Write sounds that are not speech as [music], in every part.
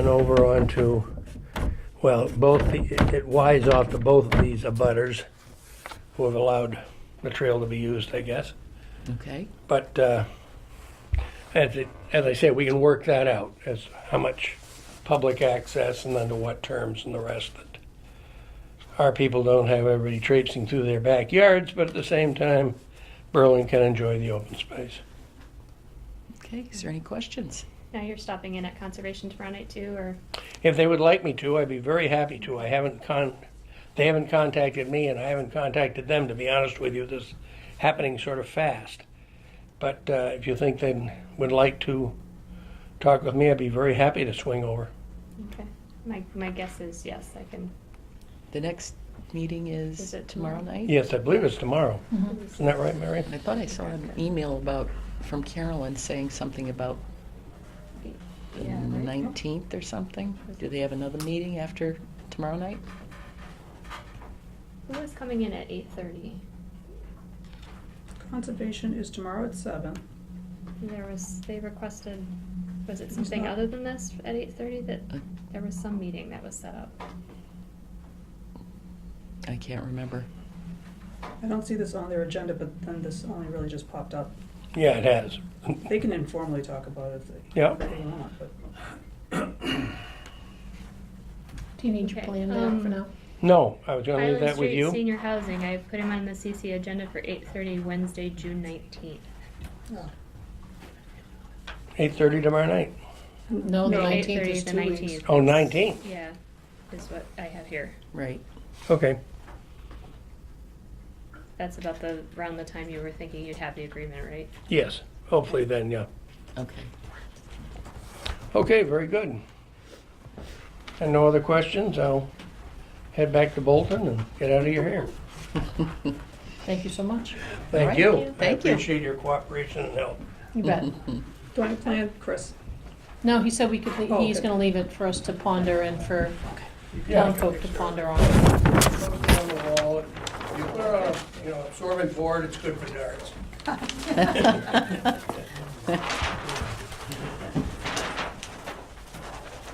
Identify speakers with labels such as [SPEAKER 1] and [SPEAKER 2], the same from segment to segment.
[SPEAKER 1] And over onto, well, both, the- it wise off to both of these abutters who have allowed the trail to be used, I guess.
[SPEAKER 2] Okay,
[SPEAKER 1] But uh, as, it, as I said, we can work that out as how much public access and under what terms and the rest. That our people don't have everybody traipsing through their backyards, but at the same time, Berlin can enjoy the open space.
[SPEAKER 2] okay, is there any questions?
[SPEAKER 3] Now you're stopping in at conservation tomorrow night too, or
[SPEAKER 1] If they would like me to, I'd be very happy to. I haven't con, they haven't contacted me, and I haven't contacted them. To be honest with you, this is happening sort of fast. But uh, if you think they would like to talk with me, I'd be very happy to swing over.
[SPEAKER 3] okay. My my guess is yes, I can.
[SPEAKER 2] The next meeting
[SPEAKER 3] Is
[SPEAKER 2] is
[SPEAKER 3] it
[SPEAKER 2] tomorrow
[SPEAKER 3] tomorrow?
[SPEAKER 2] night?
[SPEAKER 1] Yes, I believe it's tomorrow.
[SPEAKER 3] Mm-hmm.
[SPEAKER 1] Isn't that right, Mary?
[SPEAKER 2] I thought I saw an email about, from Carolyn saying something about the
[SPEAKER 3] Yeah, right.
[SPEAKER 2] 19th or something. Do they have another meeting after tomorrow night?
[SPEAKER 3] Who was coming in at eight thirty?
[SPEAKER 4] Conservation is tomorrow at seven.
[SPEAKER 3] There was they requested. Was it
[SPEAKER 4] There's
[SPEAKER 3] something
[SPEAKER 4] not-
[SPEAKER 3] other than this at eight thirty that
[SPEAKER 2] Uh,
[SPEAKER 3] there was some meeting that was set up?
[SPEAKER 2] I can't remember.
[SPEAKER 4] I don't see this on their agenda, but then this only really just popped up.
[SPEAKER 1] Yeah, it has.
[SPEAKER 4] They can informally talk about it if they,
[SPEAKER 1] Yeah.
[SPEAKER 4] if they want, but
[SPEAKER 5] Do you need your
[SPEAKER 3] Okay,
[SPEAKER 5] plan now for
[SPEAKER 3] um,
[SPEAKER 5] now?
[SPEAKER 1] No, I was going to leave
[SPEAKER 3] Highland
[SPEAKER 1] that with
[SPEAKER 3] Street
[SPEAKER 1] you.
[SPEAKER 3] Senior Housing. I put him on the CC agenda for eight thirty Wednesday, June nineteenth.
[SPEAKER 1] Eight thirty tomorrow night.
[SPEAKER 5] No, the
[SPEAKER 3] No,
[SPEAKER 5] nineteenth
[SPEAKER 3] 8:30,
[SPEAKER 5] is
[SPEAKER 3] the
[SPEAKER 5] two weeks.
[SPEAKER 3] 19th.
[SPEAKER 1] Oh, 19th.
[SPEAKER 3] Yeah, is what I have here.
[SPEAKER 2] Right.
[SPEAKER 1] Okay.
[SPEAKER 3] That's about the around the time you were thinking you'd have the agreement, right?
[SPEAKER 1] Yes. Hopefully then, yeah.
[SPEAKER 2] Okay. [laughs]
[SPEAKER 1] Okay, very good. And no other questions, I'll head back to Bolton and get out of your hair.
[SPEAKER 5] Thank you so much.
[SPEAKER 2] All
[SPEAKER 1] Thank
[SPEAKER 2] right.
[SPEAKER 1] you. I
[SPEAKER 2] Thank you.
[SPEAKER 1] appreciate your cooperation and help.
[SPEAKER 5] You bet.
[SPEAKER 4] do I have a plan, Chris?
[SPEAKER 5] No, he said we could,
[SPEAKER 4] Oh,
[SPEAKER 5] he's
[SPEAKER 4] okay.
[SPEAKER 5] gonna leave it for us to ponder and for
[SPEAKER 1] Yeah.
[SPEAKER 5] town folk to ponder on.
[SPEAKER 1] Put it on the wall. You put it on, a, uh, you know, absorbent board, it's good for darts.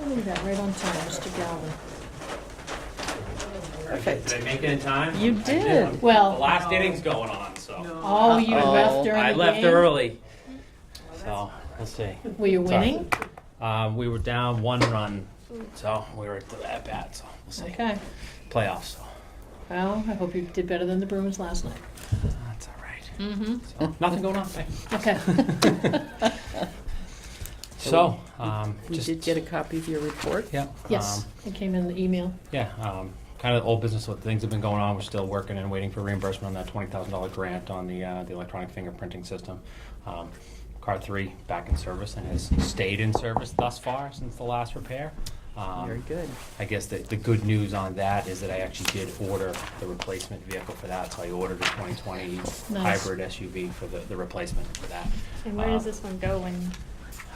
[SPEAKER 5] I'll leave that right on time, Mr. Galvin.
[SPEAKER 2] Perfect. [laughs]
[SPEAKER 6] Did I make it in time?
[SPEAKER 2] You did.
[SPEAKER 6] The
[SPEAKER 5] Well,
[SPEAKER 6] last inning's going on, so.
[SPEAKER 5] oh, you
[SPEAKER 2] Uh-oh.
[SPEAKER 5] left during the game?
[SPEAKER 6] I left early. So, let's see.
[SPEAKER 5] Were you
[SPEAKER 6] Sorry.
[SPEAKER 5] winning?
[SPEAKER 6] Um, we were down one run, so we were at bat, so we'll see.
[SPEAKER 5] Okay.
[SPEAKER 6] Playoffs, so.
[SPEAKER 5] Well, I hope you did better than the Bruins last night.
[SPEAKER 6] That's all right. So,
[SPEAKER 2] [laughs]
[SPEAKER 6] Nothing going on, thanks. [laughs]
[SPEAKER 5] Okay.
[SPEAKER 6] So, um,
[SPEAKER 2] We
[SPEAKER 6] just.
[SPEAKER 2] did get a copy of your report.
[SPEAKER 6] Yeah. um,
[SPEAKER 5] Yes, it came in the email.
[SPEAKER 6] Yeah, um, kind of old business, what things have been going on, we're still working and waiting for reimbursement on that twenty thousand dollar grant on the, uh, the electronic fingerprinting system. Um, Car three back in service and has stayed in service thus far since the last repair. Um,
[SPEAKER 2] Very good.
[SPEAKER 6] I guess the, the good news on that is that I actually did order the replacement vehicle for that, so I ordered a twenty twenty
[SPEAKER 5] Nice.
[SPEAKER 6] hybrid SUV for the, the replacement for that.
[SPEAKER 3] And
[SPEAKER 5] Uh,
[SPEAKER 3] where does
[SPEAKER 6] Um,
[SPEAKER 3] this one go when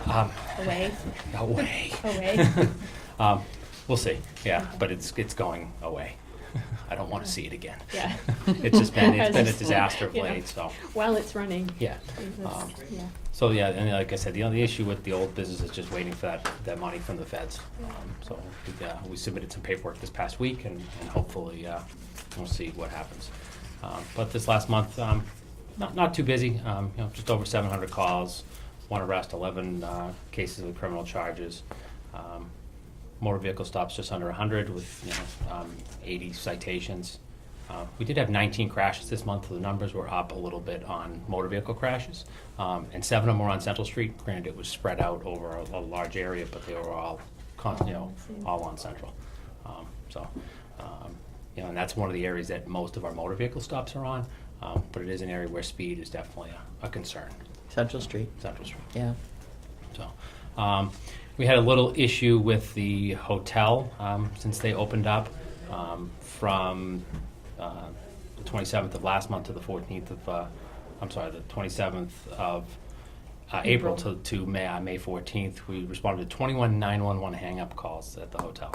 [SPEAKER 6] Um,
[SPEAKER 3] away?
[SPEAKER 6] away.
[SPEAKER 3] [laughs] Away?
[SPEAKER 6] [laughs] Um, we'll see. Yeah, but it's it's going away. [laughs] I don't want to see it again.
[SPEAKER 3] Yeah.
[SPEAKER 6] [laughs] It's just been
[SPEAKER 3] [laughs] I
[SPEAKER 6] it's
[SPEAKER 3] was
[SPEAKER 6] been a
[SPEAKER 3] just-
[SPEAKER 6] disaster of
[SPEAKER 3] you know,
[SPEAKER 6] late. So
[SPEAKER 3] While it's running.
[SPEAKER 6] yeah.
[SPEAKER 3] That's-
[SPEAKER 6] Um,
[SPEAKER 3] yeah.
[SPEAKER 6] so yeah, and like I said, the only issue with the old business is just waiting for that, that money from the feds. Um, so we, uh, we submitted some paperwork this past week, and, and hopefully uh, we'll see what happens. Um, but this last month, um, not not too busy. Um, you know, just over 700 calls, one arrest, 11 uh, cases with criminal charges. Um, motor vehicle stops just under 100 with you know, um, 80 citations. Uh, we did have 19 crashes this month. The numbers were up a little bit on motor vehicle crashes, um, and seven of them were on Central Street. Granted, it was spread out over a, a large area, but they were all, con- you know, all on Central. Um, so, um, you know, and that's one of the areas that most of our motor vehicle stops are on. Um, but it is an area where speed is definitely a, a concern.
[SPEAKER 2] Central Street.
[SPEAKER 6] Central Street.
[SPEAKER 2] Yeah.
[SPEAKER 6] So, um, we had a little issue with the hotel, um, since they opened up, um, from, uh, the twenty-seventh of last month to the fourteenth of, uh, I'm sorry, the twenty-seventh of, uh, April to, to May, uh, May fourteenth, we responded to twenty-one nine-one-one hang-up calls at the hotel.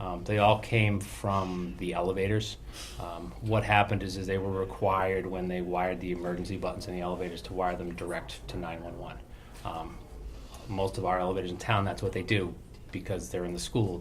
[SPEAKER 6] Um, they all came from the elevators. Um, what happened is, is they were required when they wired the emergency buttons in the elevators to wire them direct to nine-one-one. Um, most of our elevators in town, that's what they do. because they're in the school,